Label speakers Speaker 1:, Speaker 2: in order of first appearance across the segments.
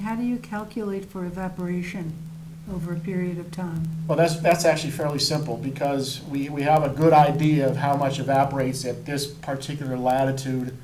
Speaker 1: how do you calculate for evaporation over a period of time?
Speaker 2: Well, that's, that's actually fairly simple, because we, we have a good idea of how much evaporates at this particular latitude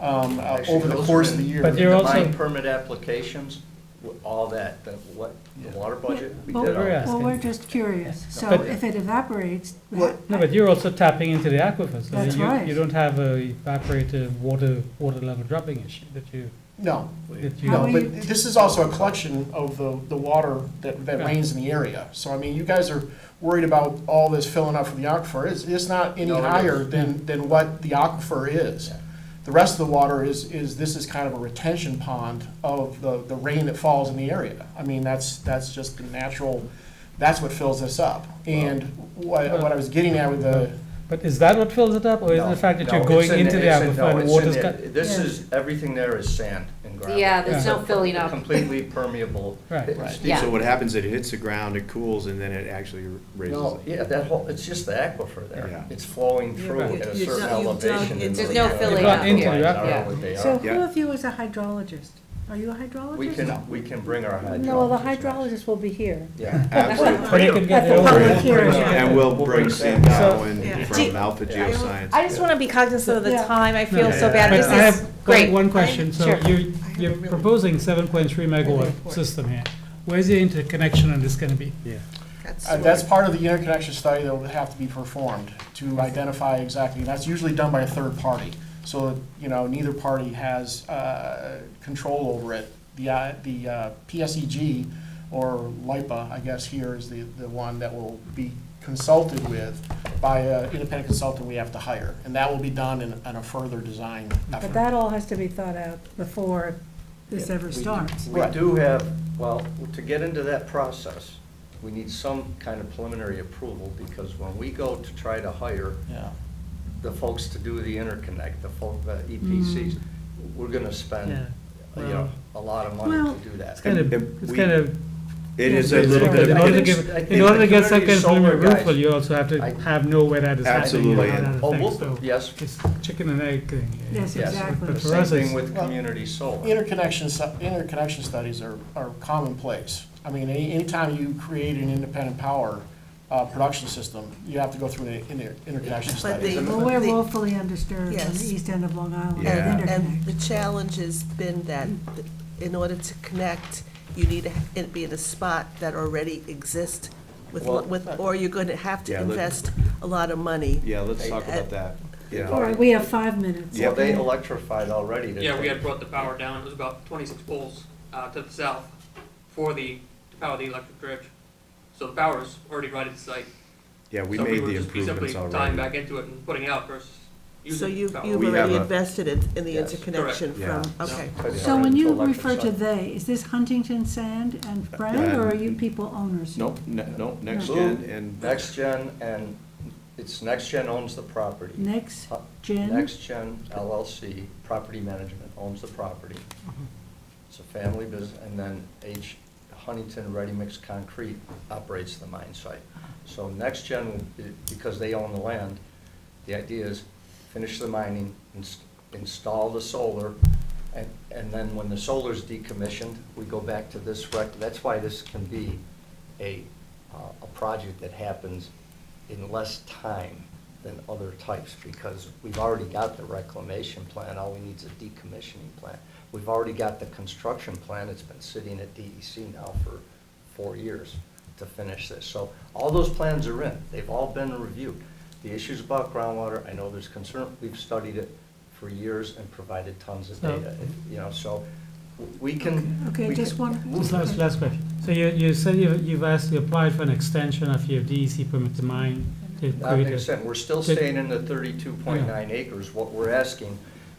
Speaker 2: um, uh,
Speaker 3: Actually,
Speaker 2: over the
Speaker 3: those
Speaker 2: course
Speaker 3: are
Speaker 2: of the
Speaker 3: in-
Speaker 2: year.
Speaker 4: But they're
Speaker 3: The
Speaker 4: also-
Speaker 3: mine permit applications, w- all that, the what, the water budget, we
Speaker 1: Well,
Speaker 3: did all
Speaker 4: We're
Speaker 3: that.
Speaker 1: Well,
Speaker 4: asking.
Speaker 1: we're just curious, so
Speaker 4: But-
Speaker 1: if it evaporates,
Speaker 3: Well-
Speaker 4: No, but you're also tapping into the aquifer, so
Speaker 1: That's
Speaker 4: you,
Speaker 1: right.
Speaker 4: you don't have a evaporative water, water level dropping issue that you,
Speaker 2: No,
Speaker 4: that you.
Speaker 1: How
Speaker 2: no,
Speaker 1: are you-
Speaker 2: but this is also a collection of the, the water that, that rains in the area. So I mean, you guys are worried about all this filling up from the aquifer. It's, it's not any
Speaker 3: No, it is.
Speaker 2: higher than, than what the aquifer is.
Speaker 3: Yeah.
Speaker 2: The rest of the water is, is, this is kind of a retention pond of the, the rain that falls in the area. I mean, that's, that's just the natural, that's what fills this up. And what, what I was getting at with the,
Speaker 4: But is that what fills it up, or is it the
Speaker 3: No,
Speaker 4: fact that
Speaker 3: no,
Speaker 4: you're
Speaker 3: it's
Speaker 4: going
Speaker 3: in
Speaker 4: into the
Speaker 3: it's in- no,
Speaker 4: aquifer and
Speaker 3: it's
Speaker 4: water's
Speaker 3: in
Speaker 4: cut?
Speaker 3: the- This
Speaker 1: Yeah.
Speaker 3: is, everything there is sand and gravel.
Speaker 5: Yeah, there's no filling up.
Speaker 3: Completely permeable.
Speaker 4: Right.
Speaker 3: It's-
Speaker 2: Right.
Speaker 5: Yeah.
Speaker 6: So what happens, it hits the ground, it cools, and then it actually raises
Speaker 3: No,
Speaker 6: it.
Speaker 3: yeah, that whole, it's just the aquifer
Speaker 6: Yeah.
Speaker 3: there. It's flowing through
Speaker 4: Right.
Speaker 3: at a
Speaker 7: You've
Speaker 3: certain
Speaker 7: dug- you've dug
Speaker 3: elevation.
Speaker 7: into
Speaker 3: and
Speaker 5: There's
Speaker 3: the-
Speaker 5: no
Speaker 3: the
Speaker 5: filling
Speaker 4: up. Into
Speaker 3: lines
Speaker 4: the
Speaker 3: are
Speaker 5: aquifer.
Speaker 3: what they
Speaker 1: so
Speaker 3: are.
Speaker 1: who
Speaker 6: Yeah.
Speaker 1: of you is a hydrologist? Are you a hydrologist?
Speaker 3: We can, we can bring our hydrologist.
Speaker 1: No, well, the
Speaker 3: next.
Speaker 1: hydrologist will be here.
Speaker 3: Yeah.
Speaker 6: Absolutely.
Speaker 4: But it could get
Speaker 1: At the
Speaker 4: over
Speaker 1: public
Speaker 4: it.
Speaker 1: hearing.
Speaker 6: And we'll bring Sam
Speaker 7: Yeah.
Speaker 6: Gowen
Speaker 7: Do-
Speaker 6: from Alpha
Speaker 3: Yeah.
Speaker 6: Geoscience.
Speaker 7: I just want to be cognizant of the
Speaker 1: Yeah.
Speaker 7: time. I feel so
Speaker 3: Yeah.
Speaker 7: bad.
Speaker 4: But
Speaker 7: This
Speaker 4: I have
Speaker 7: is
Speaker 4: one-
Speaker 7: great.
Speaker 4: One question, so
Speaker 7: Sure.
Speaker 4: you,
Speaker 7: I have a
Speaker 4: you're
Speaker 7: really-
Speaker 4: proposing seven point three megawatt
Speaker 7: report.
Speaker 4: system here. Where's the interconnection on this gonna be?
Speaker 2: Uh, That's part of the interconnection study that will have to be performed to identify exactly, and that's usually done by a third party. So, that, you know, neither party has uh, control over it. The, uh, the uh, PSEG, or LIPA, I guess here is the, the one that will be consulted with by an independent consultant we have to hire. And that will be done in, in a further design effort.
Speaker 1: But that all has to be thought out before this
Speaker 3: Yeah,
Speaker 1: ever
Speaker 3: we-
Speaker 1: starts.
Speaker 3: We do have, well, to get into that process, we need some kind of preliminary approval, because when we go to try to hire
Speaker 2: Yeah.
Speaker 3: the folks to do the interconnect, the folk, the EPCs, we're gonna
Speaker 4: Yeah,
Speaker 3: spend, you know, a lot of money
Speaker 1: Mm-hmm. Well-
Speaker 3: to do that.
Speaker 4: It's kind of,
Speaker 6: And
Speaker 4: it's
Speaker 6: we-
Speaker 4: kind of.
Speaker 6: It is a little bit
Speaker 4: In
Speaker 6: of,
Speaker 4: order to
Speaker 6: a-
Speaker 3: think-
Speaker 4: give,
Speaker 3: I think
Speaker 4: in order to
Speaker 3: the
Speaker 4: get some
Speaker 3: community
Speaker 4: kind of
Speaker 3: solar
Speaker 4: preliminary roof,
Speaker 3: guys-
Speaker 4: well, you also have to
Speaker 3: I-
Speaker 4: have know where that is happening. you know,
Speaker 6: Absolutely,
Speaker 4: and
Speaker 6: and-
Speaker 4: other
Speaker 3: Oh,
Speaker 4: things,
Speaker 3: we'll-
Speaker 4: so
Speaker 3: yes,
Speaker 4: It's chicken and egg thing. yeah.
Speaker 1: Yes,
Speaker 3: Yes.
Speaker 1: exactly.
Speaker 3: the
Speaker 4: But for
Speaker 3: same
Speaker 4: us,
Speaker 3: thing
Speaker 4: it's,
Speaker 3: with
Speaker 2: Well,
Speaker 3: community solar.
Speaker 2: Interconnection, stu- interconnection studies are, are commonplace. I mean, any, anytime you create an independent power, uh, production system, you have to go through an inter- interconnection
Speaker 7: But
Speaker 2: study.
Speaker 7: the-
Speaker 1: Well, we're
Speaker 7: The-
Speaker 1: woefully underserved on
Speaker 7: Yes.
Speaker 1: the east end of Long Island, with
Speaker 6: Yeah.
Speaker 7: And, and
Speaker 1: interconnect.
Speaker 7: the challenge has been that in order to connect, you need to ha- it be in a spot that already exists with,
Speaker 3: Well-
Speaker 7: with, or you're going to have to
Speaker 6: Yeah, let-
Speaker 7: invest a lot of money.
Speaker 6: yeah, let's talk about that.
Speaker 1: All
Speaker 6: Yeah,
Speaker 1: right, we have five minutes.
Speaker 3: Well, they
Speaker 1: okay?
Speaker 3: electrified already. to-
Speaker 8: Yeah, we had brought the power down, it was about twenty-six poles, uh, to the south for the, to power the electric bridge. So the power is already right at the site.
Speaker 6: yeah, we
Speaker 8: So
Speaker 6: made
Speaker 8: were
Speaker 6: the
Speaker 8: just
Speaker 6: improvements
Speaker 8: Simply tying
Speaker 6: already.
Speaker 8: back into it and putting out versus
Speaker 7: So
Speaker 8: using
Speaker 7: you,
Speaker 8: power.
Speaker 7: you've
Speaker 6: We have
Speaker 7: already
Speaker 6: a-
Speaker 7: invested in, in the
Speaker 3: Yes. Correct.
Speaker 7: interconnection from,
Speaker 6: Yeah.
Speaker 7: okay.
Speaker 3: But
Speaker 1: So when you
Speaker 3: electric
Speaker 1: refer to
Speaker 3: side.
Speaker 1: they, is this Huntington Sand and Brand, or are you people owners?
Speaker 6: Nope, ne- nope, next
Speaker 3: Who-
Speaker 6: gen and.
Speaker 3: Next Gen and, it's Next Gen owns the property.
Speaker 1: Next
Speaker 3: Uh,
Speaker 1: Gen?
Speaker 3: Next Gen LLC, Property Management owns the property. It's a family business, and then H Huntington Ready Mix Concrete operates the mine site. So Next Gen, eh, because they own the land, the idea is finish the mining, ins- install the solar, and, and then when the solar's decommissioned, we go back to this rec, that's why this can be a, uh, a project that happens in less time than other types, because we've already got the reclamation plan, all we need is a decommissioning plan. We've already got the construction plan, it's been sitting at DEC now for four years to finish this. So all those plans are in, they've all been reviewed. The issues about groundwater, I know there's concern, we've studied it for years and provided tons of
Speaker 4: So-
Speaker 3: data, you know, so we can.
Speaker 1: Okay,
Speaker 3: we
Speaker 1: just
Speaker 3: can-
Speaker 1: one-
Speaker 3: we
Speaker 4: just last, last question. So you, you said you, you've asked, you applied for an extension of your DEC permit to mine to
Speaker 3: That
Speaker 4: create
Speaker 3: makes
Speaker 4: a.
Speaker 3: sense, we're still
Speaker 4: Did-
Speaker 3: staying in the thirty-two point nine acres, what we're asking,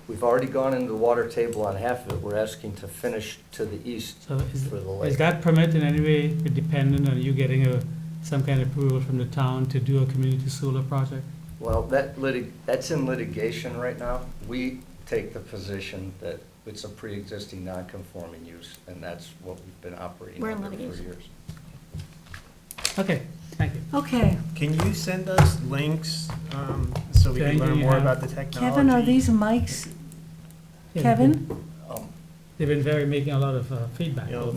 Speaker 3: we've already gone into the water table on half of it, we're asking to finish to the east
Speaker 4: So is,
Speaker 3: for the
Speaker 4: is
Speaker 3: lake.
Speaker 4: that permit in any way dependent on you getting a, some kind of approval from the town to do a community solar project?
Speaker 3: Well, that litig, that's in litigation right now, we take the position that it's a pre-existing non-conforming use, and that's what we've been operating
Speaker 5: We're in
Speaker 3: under for
Speaker 5: litigation.
Speaker 3: years.
Speaker 4: Okay, thank you.
Speaker 1: Okay,
Speaker 9: Can you send us links um, so we can
Speaker 4: Jane, do
Speaker 9: learn
Speaker 4: you
Speaker 9: more
Speaker 4: have-
Speaker 9: about the technology?
Speaker 1: Kevin, are these mics?
Speaker 4: Yeah,
Speaker 1: Kevin?
Speaker 3: Um,
Speaker 4: They've been very, making a lot of uh, feedback.
Speaker 9: You know,